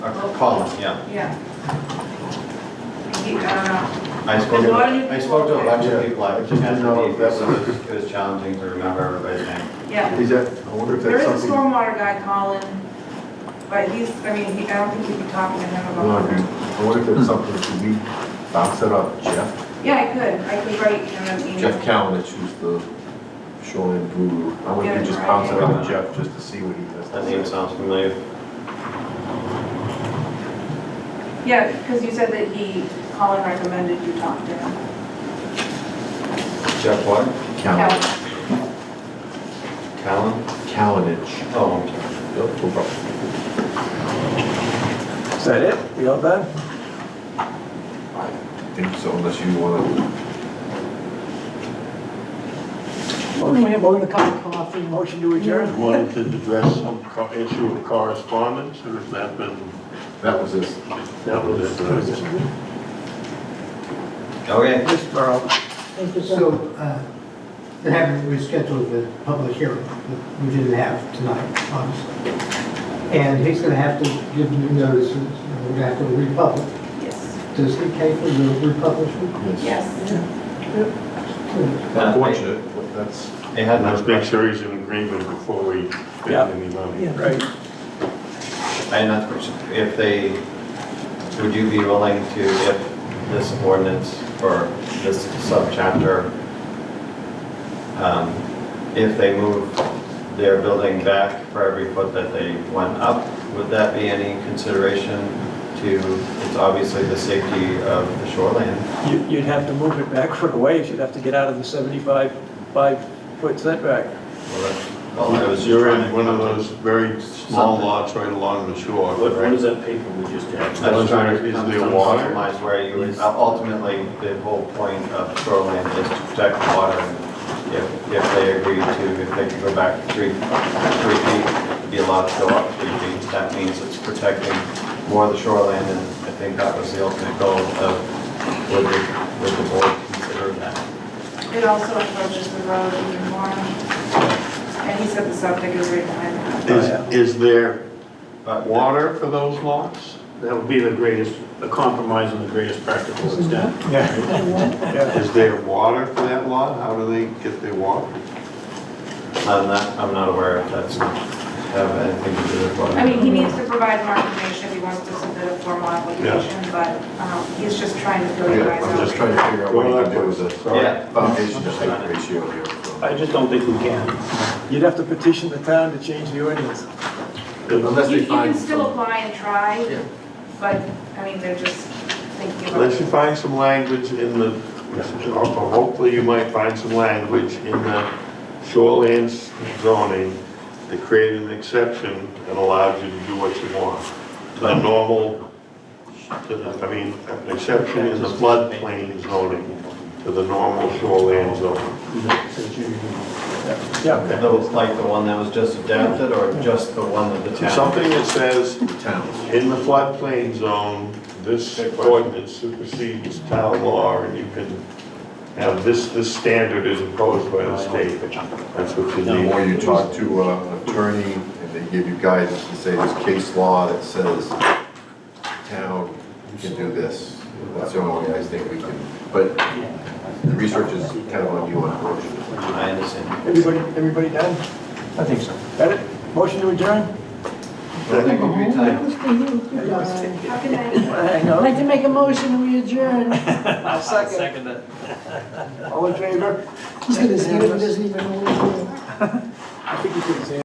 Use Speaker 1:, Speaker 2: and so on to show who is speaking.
Speaker 1: Well,
Speaker 2: Colin, yeah.
Speaker 1: Yeah. He- I don't know.
Speaker 2: I spoke,
Speaker 1: There's a lot of new
Speaker 2: to- I spoke to a bunch of people, I just had to
Speaker 3: No,
Speaker 2: leave,
Speaker 3: that's-
Speaker 2: so it was- it was challenging to remember everybody's name.
Speaker 1: Yeah.
Speaker 3: Is that, I wonder if
Speaker 1: There is
Speaker 3: that's
Speaker 1: a
Speaker 3: something.
Speaker 1: stormwater guy, Colin, but he's, I mean, he- I don't think we'd be talking to him about
Speaker 3: Okay.
Speaker 1: that.
Speaker 3: I wonder if that's something, should we bounce it up, Jeff?
Speaker 1: Yeah, I could, I could write him an email.
Speaker 3: Jeff Calnich, who's the shoreline guru. I wonder if we just bounce it up to Jeff just to see what he does.
Speaker 2: That name sounds familiar.
Speaker 1: Yeah, because you said that he, Colin recommended you talk to him.
Speaker 2: Jeff what?
Speaker 3: Calnich.
Speaker 2: Callan?
Speaker 3: Calnich.
Speaker 2: Oh, I'm sorry.
Speaker 3: Yep, no problem.
Speaker 4: Is that it? We all done?
Speaker 3: I think so, unless you wanna,
Speaker 4: Motion we have motion to come to coffee, motion to adjourn.
Speaker 5: Wanted to address some co- issue of correspondence, or has that been,
Speaker 3: that was this.
Speaker 5: that was it? uh,
Speaker 2: Okay.
Speaker 4: This borough.
Speaker 6: Thank you, sir. So, uh, it happened, we scheduled the public hearing that we didn't have tonight, honestly. And he's gonna have to give new notices, and we're gonna have to republish.
Speaker 1: Yes,
Speaker 6: Does he pay for the republishing?
Speaker 1: yes.
Speaker 3: Unfortunate, but that's.
Speaker 2: They had
Speaker 5: Let's
Speaker 2: no,
Speaker 5: make sure he's in agreement before we
Speaker 4: Yeah.
Speaker 5: spend any money.
Speaker 4: Yeah, right.
Speaker 2: I not, if they, would you be willing to, if this ordinance or this subchapter, um, if they move their building back for every foot that they went up, would that be any consideration to, it's obviously the safety of the shoreline?
Speaker 4: You- You'd have to move it back for a ways. You'd have to get out of the 75, five-foot setback.
Speaker 2: Well, that- Well, I was
Speaker 5: You're
Speaker 2: trying
Speaker 5: in
Speaker 2: to.
Speaker 5: one of those very small lots right along the shore.
Speaker 7: What, what is that paper we just
Speaker 2: I
Speaker 7: had?
Speaker 2: was trying to
Speaker 5: Is
Speaker 2: come
Speaker 5: there
Speaker 2: to a
Speaker 5: water?
Speaker 2: compromise where you, would- uh, ultimately, the whole point of shoreline is to protect the water. and If, if they agree to, if they can go back three, three feet, be allowed to go up three feet, that means it's protecting more of the shoreline, and I think that was the ultimate goal of, would the, would the board consider that?
Speaker 1: It also approaches the road even more. And he said the septic is right behind that.
Speaker 5: Is, is there
Speaker 2: But
Speaker 5: water for those lots?
Speaker 7: That would be the greatest, the compromise and the greatest practical extent.
Speaker 4: Yeah.
Speaker 5: Is there water for that lot? How do they get their water?
Speaker 2: I'm not, I'm not aware if that's, have anything to do with water.
Speaker 1: I mean, he needs to provide more information if he wants to submit a formal application, but um, he's just trying to fill you guys
Speaker 3: I'm just trying
Speaker 1: out.
Speaker 3: to figure out what you can do with this.
Speaker 2: Yeah.
Speaker 3: Foundation to height ratio here. so.
Speaker 7: I just don't think we can.
Speaker 4: You'd have to petition the town to change the ordinance.
Speaker 3: Unless
Speaker 1: You
Speaker 3: they
Speaker 1: you can
Speaker 3: find
Speaker 1: still
Speaker 3: some.
Speaker 1: apply and try, but, I mean, they're just thinking about
Speaker 5: Unless you
Speaker 1: it.
Speaker 5: find some language in the, or hopefully you might find some language in the shoreline zoning that created an exception and allowed you to do what you want. The normal, I mean, an exception in the floodplain zoning to the normal shoreline zone.
Speaker 4: Yeah.
Speaker 2: That was like the one that was just adapted, or just the one that the town?
Speaker 5: Something that says,
Speaker 3: Towns.
Speaker 5: in the floodplain zone, this ordinance supersedes town law and you can have this, this standard is imposed by the state. That's what you
Speaker 3: The
Speaker 5: need.
Speaker 3: more you talk to uh, an attorney and they give you guidance and say there's case law that says town can do this. That's the only way I think we can, but the research is kind of on you unfortunately.
Speaker 2: I understand.
Speaker 4: Everybody, everybody done? I think so. Got it? Motion to adjourn?
Speaker 2: Thank you for your time.
Speaker 1: How can I?
Speaker 4: I know. I'd like to make a motion, we adjourn. I'll second it. All in favor?
Speaker 6: Does he, does he even know what he's doing?
Speaker 4: I think you could say